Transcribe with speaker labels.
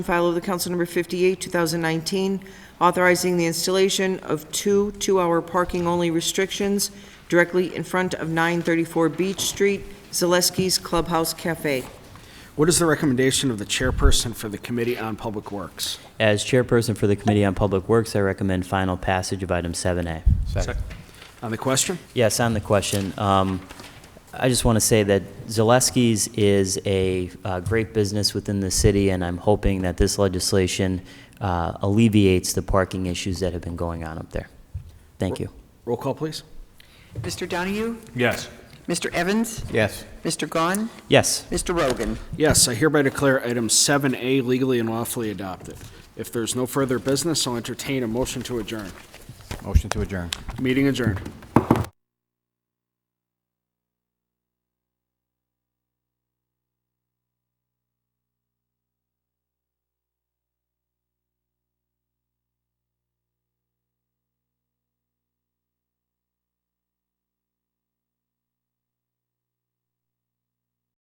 Speaker 1: File of the Council Number 58, 2019, authorizing the installation of two two-hour parking-only restrictions directly in front of 934 Beach Street, Zaleski's Clubhouse Cafe.
Speaker 2: What is the recommendation of the chairperson for the Committee on Public Works?
Speaker 3: As chairperson for the Committee on Public Works, I recommend final passage of item 7A.
Speaker 2: On the question?
Speaker 3: Yes, on the question, um, I just want to say that Zaleski's is a uh, great business within the city, and I'm hoping that this legislation uh, alleviates the parking issues that have been going on up there. Thank you.
Speaker 2: Roll call, please.
Speaker 4: Mr. Donahue?
Speaker 5: Yes.
Speaker 4: Mr. Evans?
Speaker 5: Yes.
Speaker 4: Mr. Gahn?
Speaker 3: Yes,
Speaker 4: Mr. Rogan?
Speaker 2: Yes, I hereby declare item 7A legally and lawfully adopted. If there's no further business, I'll entertain a motion to adjourn.
Speaker 5: Motion to adjourn.
Speaker 2: Meeting adjourned.